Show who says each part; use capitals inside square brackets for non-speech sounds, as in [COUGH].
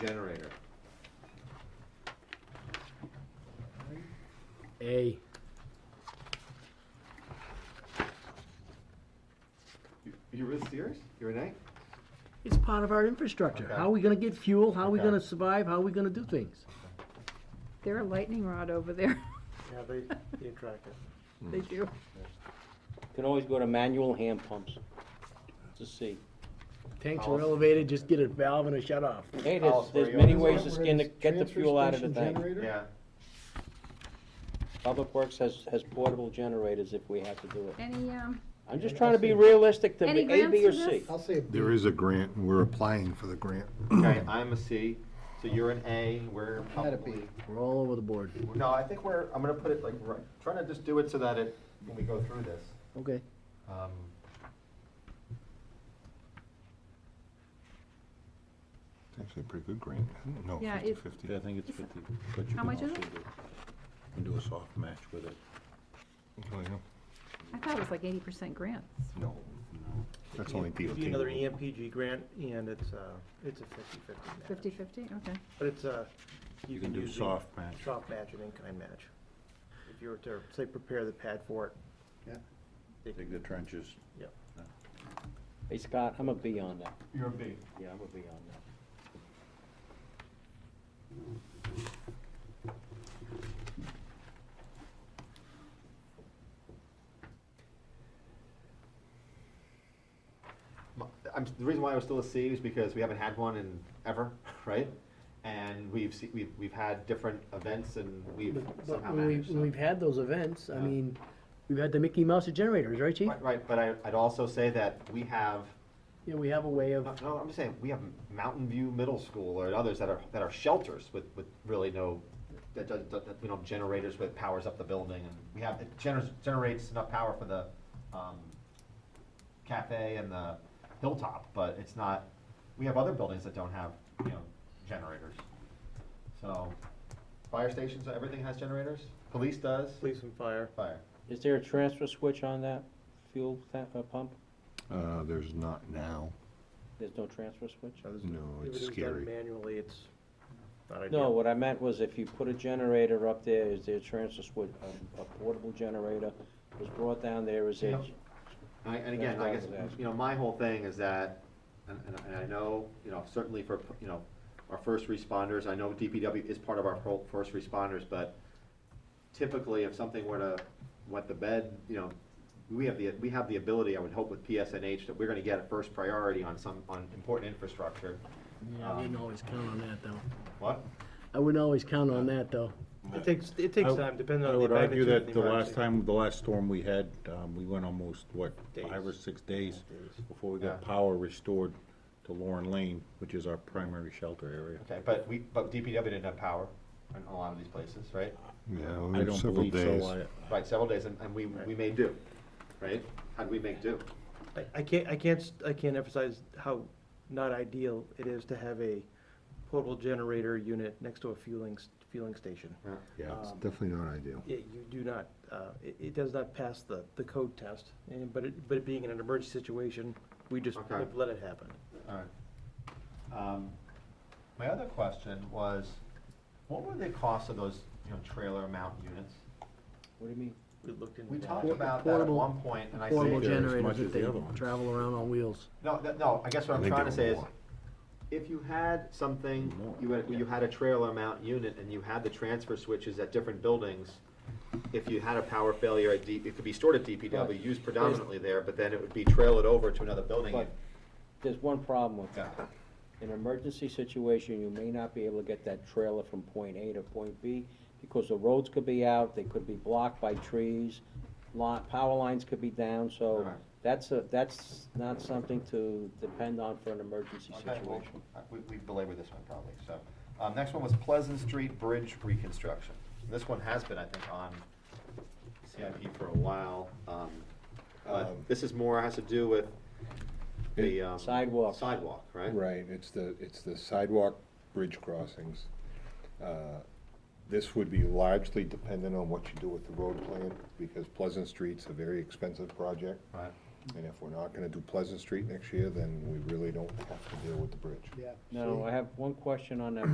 Speaker 1: A.
Speaker 2: You- You're really serious? You're an A?
Speaker 1: It's part of our infrastructure.
Speaker 2: Okay.
Speaker 1: How are we gonna get fuel? How are we
Speaker 2: Okay.
Speaker 1: gonna survive? How are we gonna do things?
Speaker 3: They're a lightning rod over there. [LAUGHS]
Speaker 4: Yeah, they, they attract it.
Speaker 3: They
Speaker 5: Hmm.
Speaker 3: do.
Speaker 5: Can always go to manual hand pumps. It's a C.
Speaker 1: Tanks are elevated, just get a valve and a shut off.
Speaker 5: Hey,
Speaker 2: Alice, where
Speaker 5: there's, there's
Speaker 2: you
Speaker 5: many
Speaker 2: at?
Speaker 5: ways to skin the, get the fuel out of the thing.
Speaker 2: Yeah.
Speaker 5: Public Works has, has portable generators if we have to do it.
Speaker 3: Any, um,
Speaker 5: I'm just
Speaker 4: Any
Speaker 5: trying to be
Speaker 4: grants?
Speaker 5: realistic to
Speaker 3: Any
Speaker 5: be A, B, or
Speaker 3: grants for
Speaker 5: C.
Speaker 3: this?
Speaker 4: I'll say a B.
Speaker 6: There is a grant, and we're applying for the grant.
Speaker 2: Okay, I'm a C, so you're an A, we're probably.
Speaker 1: We're all over the board.
Speaker 2: No, I think we're, I'm gonna put it like, right, trying to just do it so that it, when we go through this,
Speaker 1: Okay.
Speaker 2: um.
Speaker 6: It's actually a pretty good grant. No,
Speaker 3: Yeah, it-
Speaker 6: fifty-fifty. I think it's fifty.
Speaker 3: how much is it?
Speaker 6: can do a soft match with it.
Speaker 3: I thought it was like eighty percent grants.
Speaker 6: No, [LAUGHS] that's only
Speaker 4: It'd be another E
Speaker 6: DOT.
Speaker 4: EMPG grant, and it's, uh, it's a fifty-fifty match.
Speaker 3: Fifty-fifty, okay.
Speaker 4: But it's, uh, you
Speaker 6: You
Speaker 4: can
Speaker 6: can do
Speaker 4: use. the
Speaker 6: soft match.
Speaker 4: Soft match and in-kind match. If you were to, say, prepare the pad for it.
Speaker 7: Yeah.
Speaker 4: They can
Speaker 6: Dig the trenches.
Speaker 5: Hey, Scott, I'm a B on that.
Speaker 2: You're a B.
Speaker 5: Yeah, I'm a B on that.
Speaker 2: I'm, the reason why I was still a C is because we haven't had one in ever, [LAUGHS] right? And we've, se- we've, we've had different events and we've
Speaker 1: But but
Speaker 2: somehow
Speaker 1: when we,
Speaker 2: managed,
Speaker 1: when
Speaker 2: so.
Speaker 1: we've had those events, I
Speaker 2: Yeah.
Speaker 1: mean, we've had the Mickey Mouse generators, right, chief?
Speaker 2: Right, right, but I, I'd also say that we have,
Speaker 1: Yeah, we have a way of,
Speaker 5: Uh,
Speaker 2: no, no, I'm just saying, we have Mountain View Middle School or others that are, that are shelters with, with really no, that, does- that, that, you know, generators with powers up the building and we have, it generates, generates enough power for the, um, cafe and the hilltop, but it's not, we have other buildings that don't have, you know, generators. So, fire stations, everything has generators, police does,
Speaker 4: Police and fire.
Speaker 2: fire.
Speaker 5: Is there a transfer switch on that fuel ta- uh, pump?
Speaker 6: Uh, there's not now.
Speaker 5: There's no transfer switch?
Speaker 4: So this-
Speaker 6: No,
Speaker 4: if
Speaker 6: it's
Speaker 4: it was done
Speaker 6: scary.
Speaker 4: Manually, it's not ideal.
Speaker 5: No, what I meant was if you put a generator up there, is there a transfer switch, a- a portable generator was brought down there, is there?
Speaker 2: Yep. And I- And again, I guess,
Speaker 5: That's what I was asking.
Speaker 2: you know, my whole thing is that, and, and and I know, you know, certainly for, you know, our first responders, I know DPW is part of our pro- first responders, but typically if something were to wet the bed, you know, we have the, we have the ability, I would hope with PSNH, that we're gonna get a first priority on some, on important infrastructure.
Speaker 5: uh,
Speaker 1: yeah, I wouldn't always count on that, though.
Speaker 2: What?
Speaker 1: I wouldn't always count on that, though.
Speaker 4: It takes, it takes
Speaker 8: I-
Speaker 4: time, depending
Speaker 8: I
Speaker 4: on the
Speaker 8: would argue
Speaker 4: magnitude of
Speaker 8: that
Speaker 4: the
Speaker 8: the last
Speaker 4: emergency.
Speaker 8: time, the last storm we had, um, we went almost, what, five or
Speaker 4: Days.
Speaker 8: six days
Speaker 4: Days.
Speaker 8: before we got
Speaker 2: Yeah.
Speaker 8: power restored to Lauren Lane, which is our primary shelter area.
Speaker 2: Okay, but we, but DPW didn't have power in a lot of these places, right?
Speaker 6: Yeah,
Speaker 8: I
Speaker 6: there's
Speaker 8: don't
Speaker 6: several
Speaker 8: believe
Speaker 6: days.
Speaker 8: so.
Speaker 2: Right, several days, and, and we, we made do, right? How'd we make do?
Speaker 4: I, I can't, I can't, s- I can't emphasize how not ideal it is to have a portable generator unit next to a fueling, s- fueling station.
Speaker 2: Yeah.
Speaker 6: Yeah, it's
Speaker 4: Um,
Speaker 6: definitely not ideal.
Speaker 4: It, you do not, uh, it, it does not pass the, the code test, and, but it, but it being in an emergency situation, we just
Speaker 2: Okay.
Speaker 4: have let it happen.
Speaker 2: Alright. Um, my other question was, what were the costs of those, you know, trailer mount units?
Speaker 5: What do you mean?
Speaker 4: We looked into
Speaker 2: We
Speaker 4: that.
Speaker 2: talked
Speaker 1: Por-
Speaker 2: about that at
Speaker 1: portable-
Speaker 2: one point, and I say,
Speaker 1: Portable
Speaker 8: they're as
Speaker 1: generators
Speaker 8: much
Speaker 1: that
Speaker 8: as
Speaker 1: they
Speaker 8: the other ones.
Speaker 1: travel around on wheels.
Speaker 2: no, th- no, I guess what
Speaker 6: I
Speaker 2: I'm
Speaker 6: think
Speaker 2: trying
Speaker 6: they
Speaker 2: to say
Speaker 6: were
Speaker 2: is,
Speaker 6: more.
Speaker 2: if you had something,
Speaker 8: More,
Speaker 2: you had, you had a trailer mount unit and you had the transfer switches at different buildings, if you had a power failure at D, it could be stored at
Speaker 5: Right.
Speaker 2: DPW, used predominantly there, but then it would be trailed over to another building.
Speaker 5: But there's one problem with
Speaker 2: Yeah.
Speaker 5: that. In an emergency situation, you may not be able to get that trailer from point A to point B because the roads could be out, they could be blocked by trees, lot, power lines could be down, so
Speaker 2: Right.
Speaker 5: that's a, that's not something to depend on for an emergency
Speaker 2: Okay, well,
Speaker 5: situation.
Speaker 2: uh, We, we belabored this one probably, so. Um, next one was Pleasant Street Bridge reconstruction. And This one has been, I think, on CIP for a while, um, but
Speaker 8: Um,
Speaker 2: this is more, has to do with the, um.
Speaker 5: Sidewalk.
Speaker 2: Sidewalk, right?
Speaker 9: Right, it's the, it's the sidewalk bridge crossings. Uh, This would be largely dependent on what you do with the road plan, because Pleasant Street's a very expensive project.
Speaker 2: Right.
Speaker 9: And if we're not gonna do Pleasant Street next year, then we really don't have to deal with the bridge.
Speaker 5: Now, I have one question on that